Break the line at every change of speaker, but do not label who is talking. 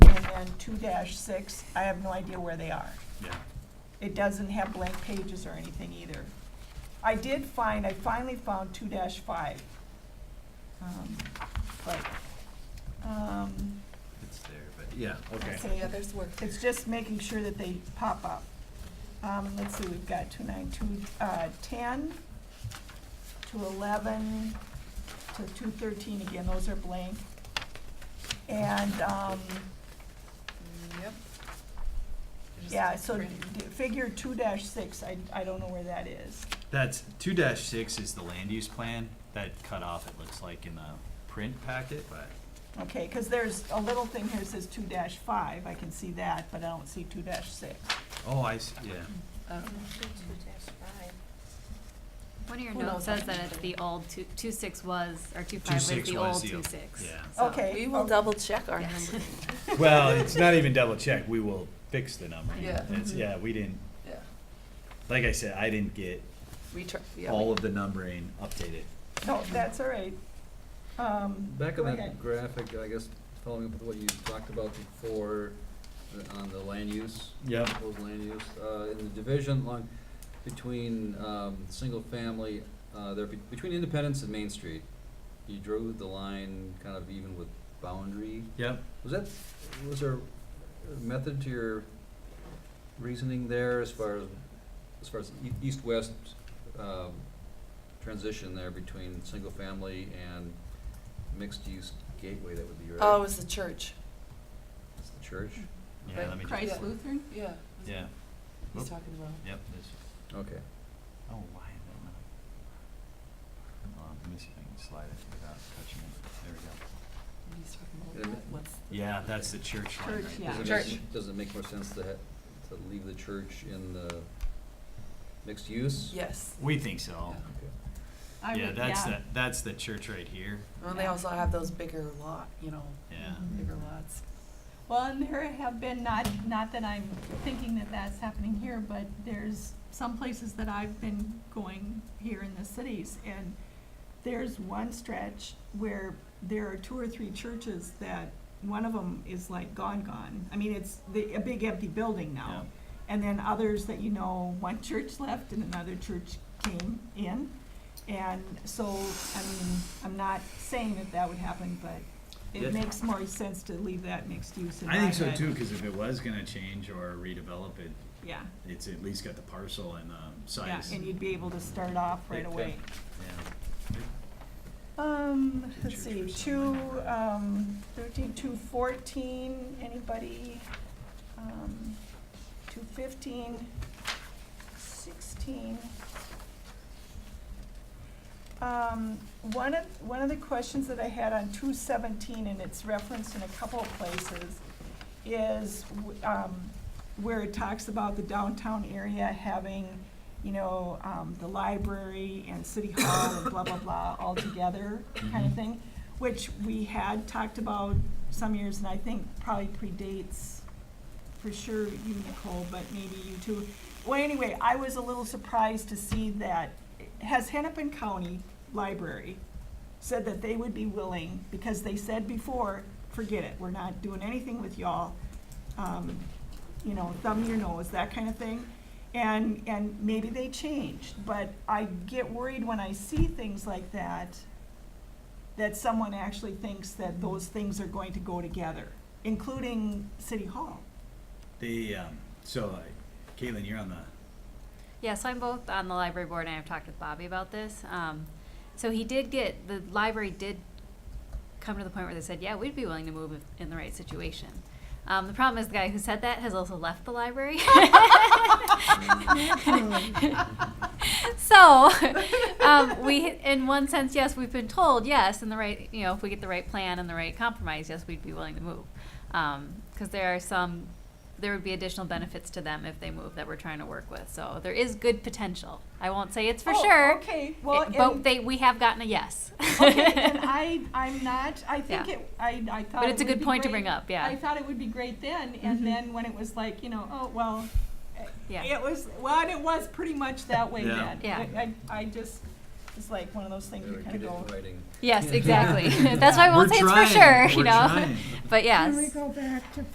on two six, I have no idea where they are.
Yeah.
It doesn't have blank pages or anything either. I did find, I finally found two five. Um, But, um,
It's there, but, yeah, okay.
Okay.
The others were.
it's just making sure that they pop up. Um, let's see, we've got two nine, two, uh, ten, to eleven, to two thirteen, again, those are blank. And, um,
Yep.
yeah, so d- figure two dash six, I, I don't know where that is.
That's, two dash six is the land use plan, that cut off, it looks like in the print packet, but,
Okay, because there's a little thing here that says two dash five, I can see that, but I don't see two dash six.
oh, I, s- yeah.
One of your
Who knows
notes says
what
that
to
it's
do.
the old two, two six was, or two
Two
five was
six
the
was
old
the
two
old-
six.
yeah.
So-
Okay.
We will double check our
Yes.
numbers.
Well, it's not even double check, we will fix the number.
Yeah. Mm-hmm.
It's, yeah, we didn't,
Yeah.
like I said, I didn't get
We try, yeah.
all of the numbering updated.
No, that's all right. Um,
Back
go
on that
ahead.
graphic, I guess, following up with what you talked about before, uh, on the land use.
Yep.
Proposed land use, uh, in the division along between, um, single family, uh, there, be- between Independence and Main Street, you drew the line kind of even with boundary.
Yep.
Was that, was there a method to your reasoning there as far as, as far as e- east-west, um, transition there between single-family and mixed-use gateway, that would be your,
Oh, it was the church.
it's the church?
Yeah, let me just,
Christ
Lutheran?
Yeah.
yeah,
He's talking about.
yep, this,
Mm-hmm.
Okay.
oh, why is that not? Hold on, let me see if I can slide it without touching it, there we go.
He's talking
Yeah,
about
but-
what's. the-
Yeah, that's the church line right
Church,
there.
yeah.
Does it
Church.
make, does it make more sense to ha- to leave the church in the mixed use?
Yes.
We think so.
Yeah.
Okay.
I
Yeah,
would-
that's the, that's the church right here,
Well, they also have those bigger lot, you know,
yeah.
Mhm.
bigger lots.
Well, and there have been, not, not that I'm thinking that that's happening here, but there's some places that I've been going here in the cities, and there's one stretch where there are two or three churches that, one of them is like gone, gone. I mean, it's the, a big empty building now.
Yeah.
And then others that, you know, one church left and another church came in. And so, I mean, I'm not saying that that would happen, but
Yeah.
it makes more sense to leave that mixed use in my
I think
head.
so too, cause if it was gonna change or redevelop it,
Yeah,
it's at least got the parcel and, um,
yeah,
size.
and you'd be able to start off right
Yeah.
away.
Yeah.
Um,
Two
let's see,
churches
two,
online.
um, thirteen, two fourteen, anybody? Um, two fifteen, sixteen. Um, one of, one of the questions that I had on two seventeen, and it's referenced in a couple of places, is, w- um, where it talks about the downtown area having, you know, um, the library and city hall and blah, blah, blah, all together kind of
Mhm.
thing, which we had talked about some years, and I think probably predates, for sure, you, Nicole, but maybe you too. Well, anyway, I was a little surprised to see that, has Hennepin County Library said that they would be willing, because they said before, forget it, we're not doing anything with y'all. Um, you know, thumb your nose, that kind of thing. And, and maybe they changed, but I get worried when I see things like that, that someone actually thinks that those things are going to go together, including City Hall.
They, um, so, uh, Caitlin, you're on the,
Yeah, so I'm both on the library board and I've talked with Bobby about this. Um, so he did get, the library did come to the point where they said, yeah, we'd be willing to move if- in the right situation. Um, the problem is the guy who said that has also left the library. so, um, we, in one sense, yes, we've been told, yes, in the right, you know, if we get the right plan and the right compromise, yes, we'd be willing to move. Um, cause there are some, there would be additional benefits to them if they move that we're trying to work with. So there is good potential. I won't say it's for
Oh,
sure.
Okay, well,
it- but
and-
they, we have gotten a yes.
okay, and I, I'm not, I think
Yeah.
it, I, I thought
But
it
it's a
would
good
be
point to
great-
bring up, yeah.
I thought it would be great then,
Mhm.
and then when it was like, you know, oh, well, eh,
Yeah.
it was, well, and it was pretty much that way
Yeah.
then.
Yeah.
I, I, I just, it's like one of those things
Better
you
get
kind of
it
go,
in writing.
yes, exactly. That's why I won't
We're
say
trying,
it's for sure,
we're
you know.
trying.
But yes.
Can we go back to